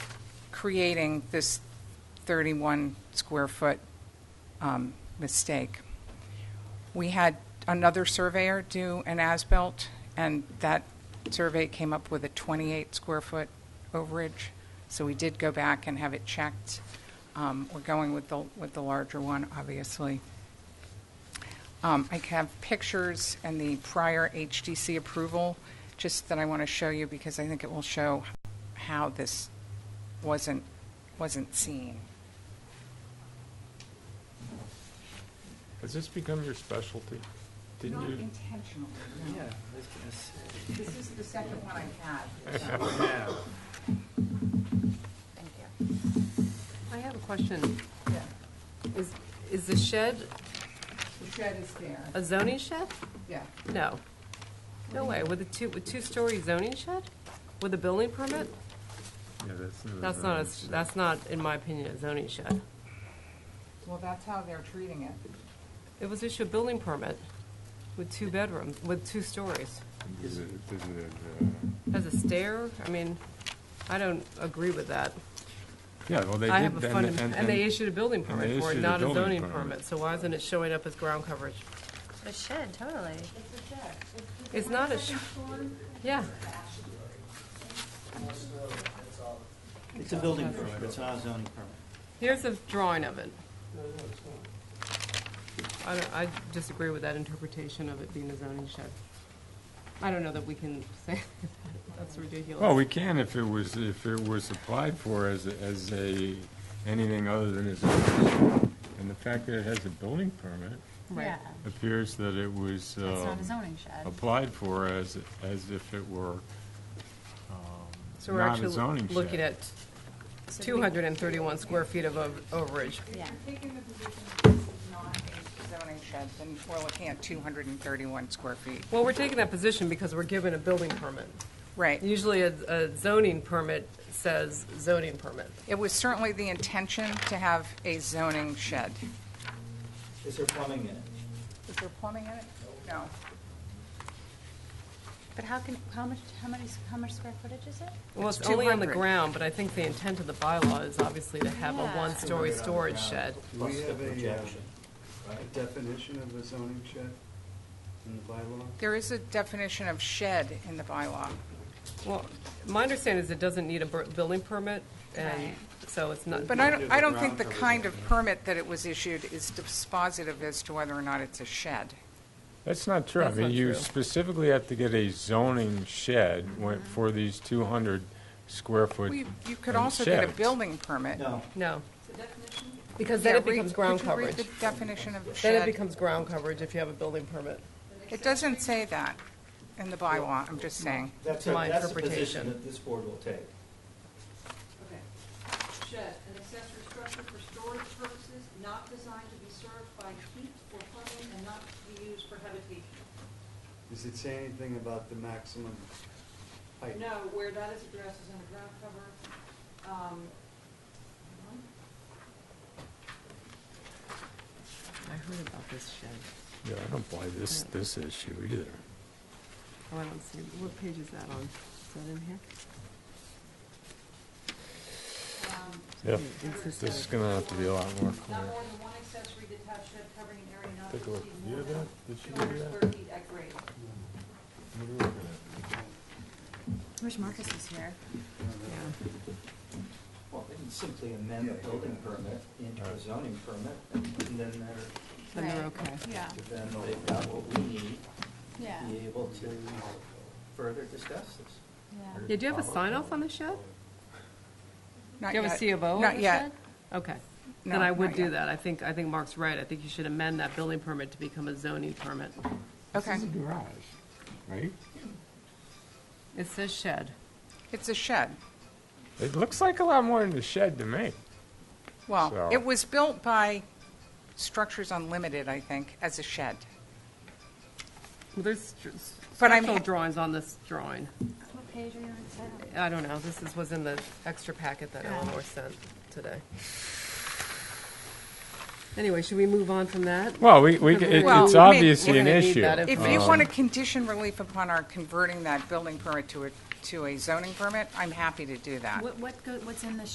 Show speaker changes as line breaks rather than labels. creating this 31 square foot um, mistake. We had another surveyor do an as-built, and that survey came up with a 28 square foot overage. So we did go back and have it checked. Um, We're going with the, with the larger one, obviously. Um, I have pictures and the prior HDC approval, just that I want to show you because I think it will show how this wasn't, wasn't seen.
Has this become your specialty? Didn't
Not
you?
intentionally,
Yeah,
no. This is the second one I had. Thank you.
I have a question. Is, is the shed
The shed is there,
a zoning shed?
yeah.
No. No way, with a two, with two-story zoning shed? With a building permit? That's not, a s- that's not, in my opinion, a zoning shed.
Well, that's how they're treating it.
It was issued a building permit with two bedrooms, with two stories. Has a stair, I mean, I don't agree with that.
Yeah, well, they did.
I have a
and-
fund,
and-
and they issued a building
and they
permit for it,
issued a
not a
building
zoning
permit.
permit, so why isn't it showing up as ground coverage?
A shed, totally.
It's not a sh- Yeah,
It's a building permit, it's not a zoning permit.
here's a drawing of it. I, don't- I disagree with that interpretation of it being a zoning shed. I don't know that we can say, that's
Well,
ridiculous.
we can if it was, if it was applied for as, a- as a, anything other than a zoning. And the fact that it has a building permit
Right.
appears that it was
It's
um,
not a zoning shed.
applied for as, as if it were
So we're
not a
actually
zoning shed.
looking at two hundred and thirty-one square feet of ov- overage.
Yeah.
If you're taking the position that this is not a zoning shed, then we're looking at 231 square feet.
Well, we're taking that position because we're given a building permit.
Right.
Usually a, a zoning permit says zoning permit.
It was certainly the intention to have a zoning shed.
Is there plumbing in it?
Is there plumbing in it? No.
But how can, how much, how many, how much square footage is it?
Well,
It's
it's only on the
200.
ground, but I think the intent of the bylaw is obviously to have a
Yeah.
one-story storage
Ground
shed.
Do
Plus
we
the
have a, uh,
projection,
a
right?
definition of a zoning shed in the bylaw?
There is a definition of shed in the bylaw.
Well, my understanding is it doesn't need a bur- building permit, and
Right.
so it's not,
But I don't, I don't
Ground
think the
cover
kind of permit that it was issued is dispositive as to whether or not it's a shed.
That's not true. I
That's
mean,
not
you
true.
specifically have to get a zoning shed when- for these 200 square foot
Well, You you could
um,
also get a
sheds.
building permit.
No,
no. Because then
Yeah,
it
read-
becomes ground
Could you read
coverage.
the definition of
Then it
shed?
becomes ground coverage if you have a building permit.
It doesn't say that in the bylaw, I'm just saying.
that's,
To
a-
my
that's the position
interpretation.
that this board will take.
Okay. Shed, an accessory structure for storage purposes, not designed to be served by heat or plumbing, and not to be used for habitation.
Does it say anything about the maximum height?
No, where that is addressed is in the ground cover. Um, hold on.
I heard about this shed.
Yeah, I don't buy this, this issue either.
Oh, I don't see, what page is that on? Is that in here?
Um,
Yeah,
under
this
accessory
is going to have to be a lot more
Not
clear.
more than one accessory detached shed covering an area not to
Take a look.
exceed
You
more
have that?
than
Did she
two
give you
hundred
that?
square feet at grade.
What are we looking at?
Wish Marcus was here.
Well, they can simply amend the building permit into a zoning permit, and then they're,
Then they're
Right.
okay.
Yeah,
then they've got what we need
yeah,
to be able to further discuss this.
yeah.
Yeah, do you have a sign off on the shed?
Not
Do you have a
yet.
C of O on
Not
the
yet.
shed? Okay.
No,
Then I would
not
do
yet.
that. I think, I think Mark's right. I think you should amend that building permit to become a zoning permit.
Okay,
This is a garage, right?
It says shed.
it's a shed.
It looks like a lot more than a shed to me.
Well,
So-
it was built by Structures Unlimited, I think, as a shed.
Well, There's stru-
But I'm-
structural drawings on this drawing.
What page are you on, Sarah?
I don't know, this is, was in the extra packet that
Yeah.
Eleanor sent today. Anyway, should we move on from that?
Well, we, we, it-
Well,
it's
I mean,
obviously
we're
an
gonna need
issue.
that
If
Uh,
you want to condition relief upon our converting that building permit to a, to a zoning permit, I'm happy to do that.
What, what, go- what's in the